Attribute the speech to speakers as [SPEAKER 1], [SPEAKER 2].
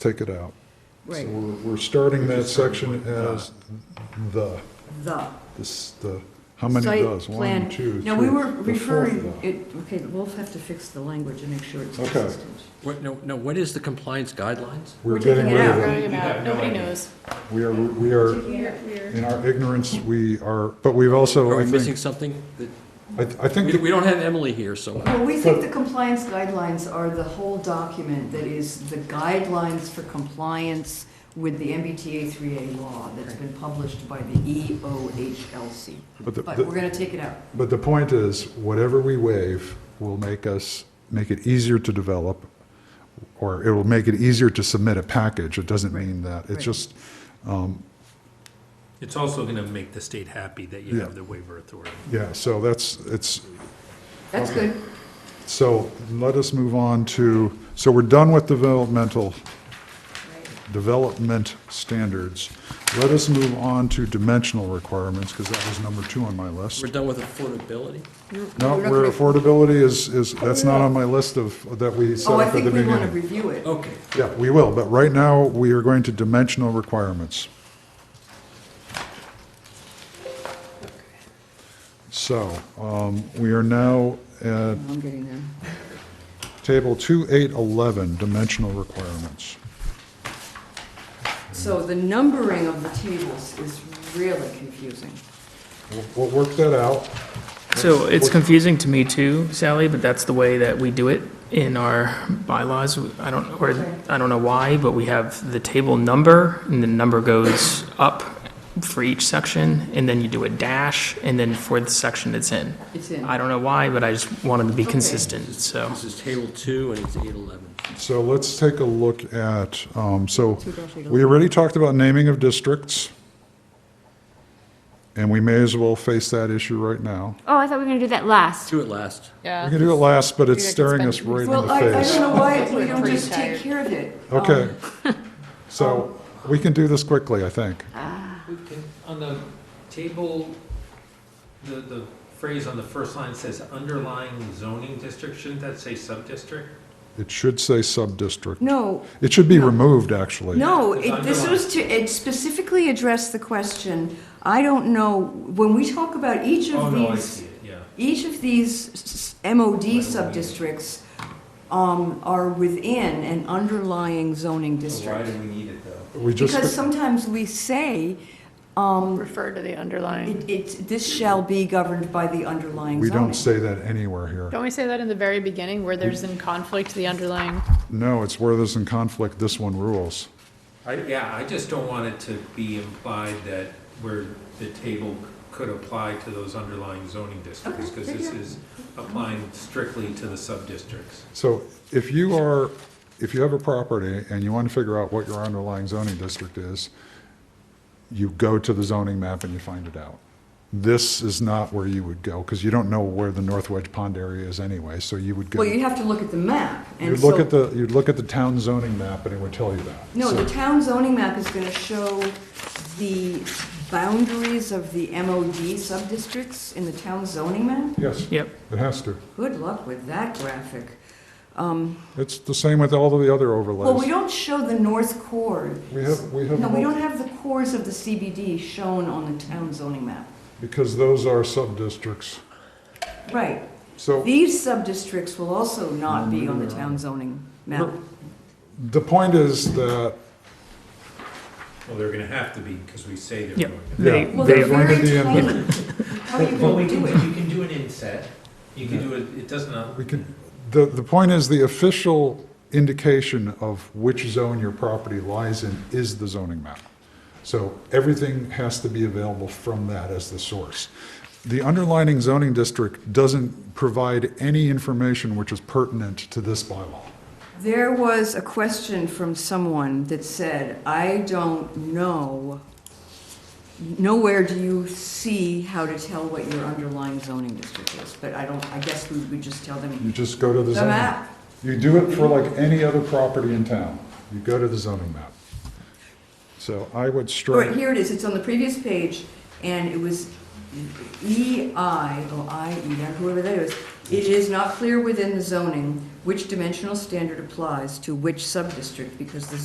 [SPEAKER 1] take it out.
[SPEAKER 2] Right,
[SPEAKER 1] So we're, we're starting that section as the,
[SPEAKER 2] the.
[SPEAKER 1] this, the, how many
[SPEAKER 2] Site
[SPEAKER 1] does? One,
[SPEAKER 2] plan.
[SPEAKER 1] two, three.
[SPEAKER 2] No, we were
[SPEAKER 1] the fourth
[SPEAKER 2] referring,
[SPEAKER 1] one.
[SPEAKER 2] it, okay, we'll have to fix the language and make sure it's
[SPEAKER 1] Okay.
[SPEAKER 2] consistent.
[SPEAKER 3] What, no, no, what is the compliance guidelines?
[SPEAKER 1] We're
[SPEAKER 2] we're taking
[SPEAKER 1] getting
[SPEAKER 2] it
[SPEAKER 1] rid of it.
[SPEAKER 2] out.
[SPEAKER 4] Running about, nobody knows.
[SPEAKER 1] We are, we are, in our ignorance, we are, but we've also,
[SPEAKER 3] Are we
[SPEAKER 1] I
[SPEAKER 3] missing
[SPEAKER 1] think,
[SPEAKER 3] something? that-
[SPEAKER 1] I I think,
[SPEAKER 3] We, we
[SPEAKER 1] the-
[SPEAKER 3] don't have Emily here, so,
[SPEAKER 2] Well, we think the compliance guidelines are the whole document that is the guidelines for compliance with the MBTA 3A law that's been published by the E EOHLC.
[SPEAKER 1] But the-
[SPEAKER 2] But
[SPEAKER 1] the-
[SPEAKER 2] we're going to take it out.
[SPEAKER 1] but the point is, whatever we waive will make us, make it easier to develop, or it will make it easier to submit a package. It doesn't
[SPEAKER 2] Right.
[SPEAKER 1] mean that,
[SPEAKER 2] Right.
[SPEAKER 1] it's just,
[SPEAKER 5] It's also going to make the state happy that you
[SPEAKER 1] Yeah.
[SPEAKER 5] have the waiver authority.
[SPEAKER 1] yeah, so that's, it's,
[SPEAKER 2] That's good.
[SPEAKER 1] So let us move on to, so we're done with developmental, development standards. Let us move on to dimensional requirements, because that was number two on my list.
[SPEAKER 3] we're done with affordability?
[SPEAKER 1] No,
[SPEAKER 2] We're not
[SPEAKER 1] where
[SPEAKER 2] gonna-
[SPEAKER 1] affordability is, is, that's not on my list of, that we set
[SPEAKER 2] Oh, I
[SPEAKER 1] up at
[SPEAKER 2] think
[SPEAKER 1] the Oh.
[SPEAKER 2] we want to
[SPEAKER 1] beginning.
[SPEAKER 2] review it.
[SPEAKER 3] Okay,
[SPEAKER 1] Yeah, we will, but right now, we are going to dimensional requirements. So, um, we are now at
[SPEAKER 2] I'm getting there.
[SPEAKER 1] Table 2811, dimensional requirements.
[SPEAKER 2] So the numbering of the tables is really confusing.
[SPEAKER 1] We'll- We'll work that out.
[SPEAKER 4] So it's confusing to me too, Sally, but that's the way that we do it in our bylaws. I don't, or, I don't know why, but we have the table number, and the number goes up for each section, and then you do a dash, and then for the section it's in.
[SPEAKER 2] It's in.
[SPEAKER 4] I don't know why, but I just wanted to be
[SPEAKER 2] Okay.
[SPEAKER 4] consistent, so.
[SPEAKER 3] this is table two, and it's eight eleven.
[SPEAKER 1] So let's take a look at, um, so
[SPEAKER 2] Two dash eight oh.
[SPEAKER 1] we already talked about naming of districts, and we may as well face that issue right now.
[SPEAKER 6] Oh, I thought we were gonna do that last.
[SPEAKER 3] Do it last.
[SPEAKER 1] We can do it last, but it's
[SPEAKER 6] Yeah, I can
[SPEAKER 1] staring
[SPEAKER 6] spend-
[SPEAKER 1] us right in
[SPEAKER 2] Well, I, I
[SPEAKER 1] the
[SPEAKER 2] don't
[SPEAKER 1] face.
[SPEAKER 2] know why we don't
[SPEAKER 6] Pretty
[SPEAKER 2] just take
[SPEAKER 6] tired.
[SPEAKER 2] care of it. Um,
[SPEAKER 1] Okay. So we can do this quickly, I think.
[SPEAKER 5] On the table, the, the phrase on the first line says underlying zoning district, shouldn't that say sub-district?
[SPEAKER 1] It should say sub-district.
[SPEAKER 2] No,
[SPEAKER 1] It should be removed, actually.
[SPEAKER 2] no,
[SPEAKER 5] It's
[SPEAKER 2] it- this was to, it specifically addressed the question, I don't know, when we talk about each
[SPEAKER 5] Oh,
[SPEAKER 2] of
[SPEAKER 5] no, I
[SPEAKER 2] these,
[SPEAKER 5] see it, yeah.
[SPEAKER 2] each of these s- s- MOD sub-districts um, are within an underlying
[SPEAKER 5] Oh,
[SPEAKER 2] zoning district.
[SPEAKER 5] we need it, though?
[SPEAKER 1] We
[SPEAKER 2] Because
[SPEAKER 1] just,
[SPEAKER 2] sometimes we say,
[SPEAKER 7] refer to the underlying.
[SPEAKER 2] it, it's, this shall be governed by the underlying
[SPEAKER 1] we don't
[SPEAKER 2] zoning.
[SPEAKER 1] say that anywhere here.
[SPEAKER 7] Don't we say that in the very beginning, where there's in conflict, the underlying?
[SPEAKER 1] No, it's where there's in conflict, this one rules.
[SPEAKER 5] I, yeah, I just don't want it to be implied that where the table could apply to those underlying zoning districts, because this is applying strictly to the sub-districts.
[SPEAKER 1] So if you are, if you have a property and you want to figure out what your underlying zoning district is, you go to the zoning map and you find it out. This is not where you would go, because you don't know where the North Wedge Pond area is anyway, so you would go.
[SPEAKER 2] Well, you have to look at the map, and
[SPEAKER 1] You'd
[SPEAKER 2] so.
[SPEAKER 1] look at the, you'd look at the town zoning map and it would tell you that.
[SPEAKER 2] No,
[SPEAKER 1] So-
[SPEAKER 2] the town zoning map is gonna show the boundaries of the MOD sub-districts in the town zoning map?
[SPEAKER 1] Yes,
[SPEAKER 4] Yep,
[SPEAKER 1] it has to.
[SPEAKER 2] Good luck with that graphic. Um,
[SPEAKER 1] It's the same with all of the other
[SPEAKER 2] Well, we
[SPEAKER 1] overlays.
[SPEAKER 2] don't show the north core.
[SPEAKER 1] We have, we have.
[SPEAKER 2] No, we
[SPEAKER 1] multi-
[SPEAKER 2] don't have the cores of the CBD shown on the town zoning map.
[SPEAKER 1] Because those are sub-districts.
[SPEAKER 2] Right.
[SPEAKER 1] So.
[SPEAKER 2] These sub-districts will also not be on the town zoning map.
[SPEAKER 1] The point is that
[SPEAKER 5] Well, they're gonna have to be, because we say they're
[SPEAKER 4] Yeah.
[SPEAKER 5] going to.
[SPEAKER 4] They-
[SPEAKER 2] Well,
[SPEAKER 4] they-
[SPEAKER 2] they're
[SPEAKER 1] They're going to
[SPEAKER 2] very
[SPEAKER 1] be in
[SPEAKER 2] tiny. How are you
[SPEAKER 5] Well, we
[SPEAKER 2] gonna
[SPEAKER 5] can,
[SPEAKER 2] do
[SPEAKER 5] do-
[SPEAKER 2] it?
[SPEAKER 5] you can do an inset, you can do it, uh, it does not,
[SPEAKER 1] we could, the, the point is the official indication of which zone your property lies in is the zoning map. So everything has to be available from that as the source. The underlining zoning district doesn't provide any information which is pertinent to this bylaw.
[SPEAKER 2] There was a question from someone that said, I don't know, nowhere do you see how to tell what your underlying zoning district is, but I don't, I guess we would just tell
[SPEAKER 1] You
[SPEAKER 2] them
[SPEAKER 1] just go to the
[SPEAKER 2] the
[SPEAKER 1] zoning.
[SPEAKER 2] map.
[SPEAKER 1] You do it for like any other property in town. You go to the zoning map. So I would
[SPEAKER 2] All right,
[SPEAKER 1] strike.
[SPEAKER 2] here it is, it's on the previous page, and it was E oh, EI, or IE, E whoever that is. It is not clear within the zoning which dimensional standard applies to which subdistrict because the